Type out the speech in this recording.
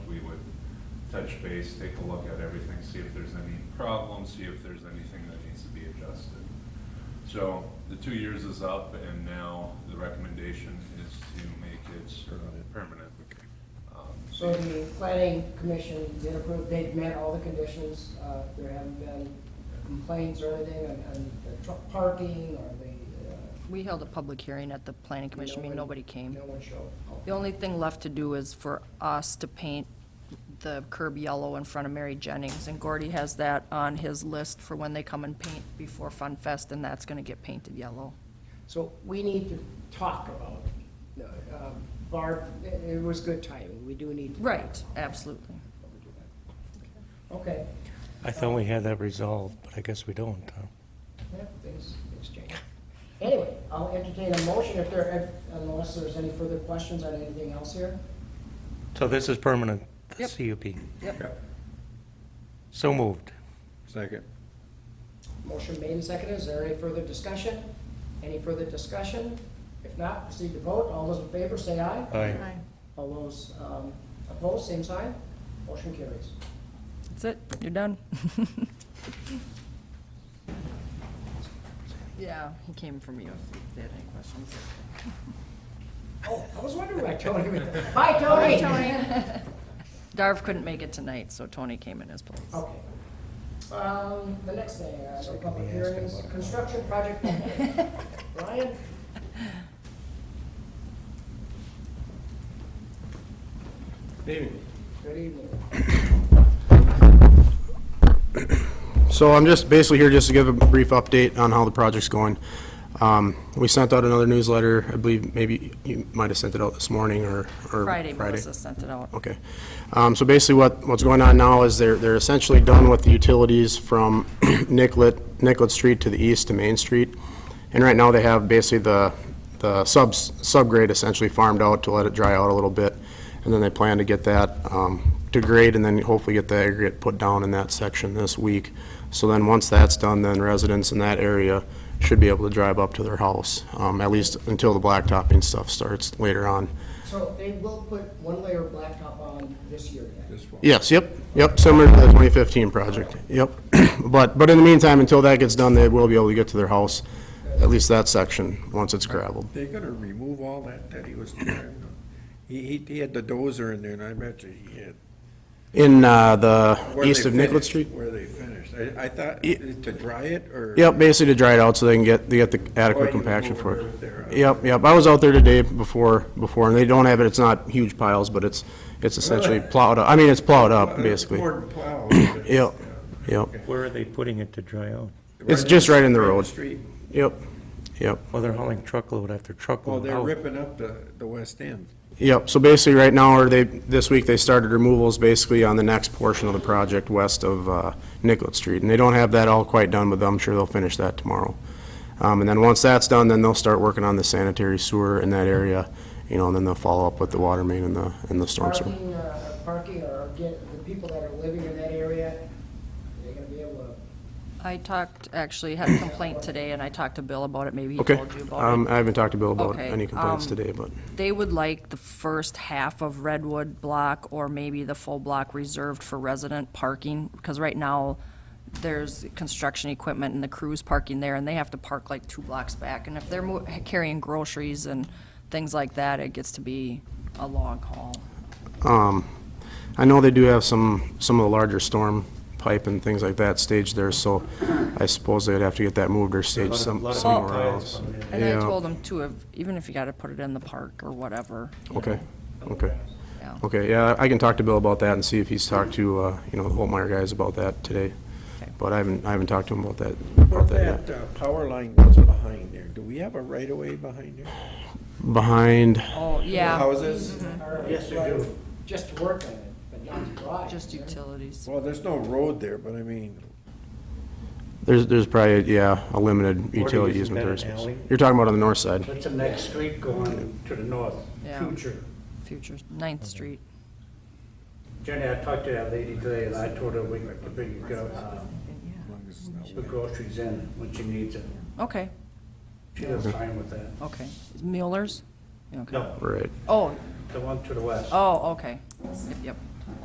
touch base, take a look at everything, see if there's any problems, see if there's anything that needs to be adjusted. So the two years is up and now the recommendation is to make it uh, permanent. Um, So the planning commission did approve, they've met all the conditions, uh, there haven't been complaints or anything on, on the truck parking or the, uh. We held a public hearing at the planning commission meeting, no one- nobody came. No one showed. up. The only thing left to do is for us to paint the curb yellow in front of Mary Jennings, and Gordy has that on his list for when they come and paint before Fun Fest, and that's gonna get painted yellow. So we need to talk about, it. Uh, Barb, it it was good timing, we do need to. Right, absolutely. Okay, I thought we had that resolved, but I guess we don't, huh? yeah, things, things change. Anyway, I'll entertain a motion if there, if- unless there's any further questions on anything else here. So this is permanent, the Yep. CUP. Yep. So moved. Second. Motion made and seconded. Is there any further discussion? Any further discussion? If not, proceed to vote. All those in favor, say aye. Aye. All those um, opposed, same sign. Motion carries. That's it, you're done. Yeah, he came from you, if they had any questions. Oh, I was wondering why Tony, was- bye, Tony. Darv couldn't make it tonight, so Tony came in his place. Okay. Um, The next thing, uh, no So can public we ask him hearings, about it? construction project. update. Ryan? Good evening. So I'm just basically here just to give a brief update on how the project's going. Um, We sent out another newsletter, I believe maybe you might have sent it out this morning or or Friday, Melissa sent it out. Okay. Um, So basically, what, what's going on now is they're, they're essentially done with the utilities from Nicollet, Nicollet Street to the east to Main Street. And right now, they have basically the, the subs, subgrade essentially farmed out to let it dry out a little bit. And then they plan to get that um, to grade and then hopefully get the aggregate put down in that section this week. So then, once that's done, then residents in that area should be able to drive up to their house, um, at least until the blacktopping stuff starts later on. So they will put one layer of blacktop on this year yet? Yes, yep, yep, similar to the 2015 project, yep. But, but in the meantime, until that gets done, they will be able to get to their house, at least that section, once it's gravelled. They're gonna remove all that that he was driving on. He, he, he had the dozer in there and I bet you he had. In uh, the where east they of Nicollet finished- Street? Where they finished. I, I thought, Ye- to dry it or? Yep, basically to dry it out so they can get, they get the Or adequate you compaction move for over there, it. uh, Yep, yep, I was out there today before, before, and they don't have it, it's not huge piles, but it's, it's essentially Really? plowed up, I mean, it's plowed Uh, up, basically. More than plow. Yep, yep, Where are they putting it to dry out? It's just right in the road. Street. yep, yep. Well, they're hauling truckload after Well, truckload they're Oh. out. ripping up the, the west end. Yep, so basically, right now, or they, this week, they started removals basically on the next portion of the project west of uh, Nicollet Street, and they don't have that all quite done, but I'm sure they'll finish that tomorrow. Um, And then once that's done, then they'll start working on the sanitary sewer in that area, you know, and then they'll follow up with the water main and the, and the storm sewer. Parking, uh, parking or get, the people that are living in that area, they're gonna be able I talked, actually had a complaint today, and I talked to Bill about it, maybe he Okay, told you about Um, it. I haven't talked to Bill about Okay, any complaints um, today, but, They would like the first half of Redwood block, or maybe the full block reserved for resident parking, because right now, there's construction equipment and the crews parking there, and they have to park like two blocks back, and if they're mo- carrying groceries and things like that, it gets to be a long haul. um, I know they do have some, some of the larger storm pipe and things like that staged there, so I suppose they'd have to get that moved or staged some- Lot of- lot of somewhere piles else. from there. And I Yeah. told them too, if- even if you gotta put it in the park or whatever, Okay, okay, yeah. okay, yeah, I can talk to Bill about that and see if he's talked to, uh, you know, the Holtmeyer guys about that today. Okay. But I haven't, I haven't talked to him about that, Where about that that uh, power line goes behind there, do we have a right of way behind there? yet. Behind, Oh, yeah, Houses? to. Yes, they do. Just to work on it, but not to drive. just utilities. Well, there's no road there, but I mean, there's, there's probably, yeah, a limited utility isn't easement that there. an alley? You're talking about on the north side? That's the next street going to the north, Yeah. future. Future, Ninth Street. Jenny, I talked to that lady today, and I told her we could bring the uh, as long as it's not the groceries in when she needs it. Okay, She was fine with that. okay. Is Mueller's? Okay. No, Right, Oh, the one to the west. oh, okay. Yep, yep.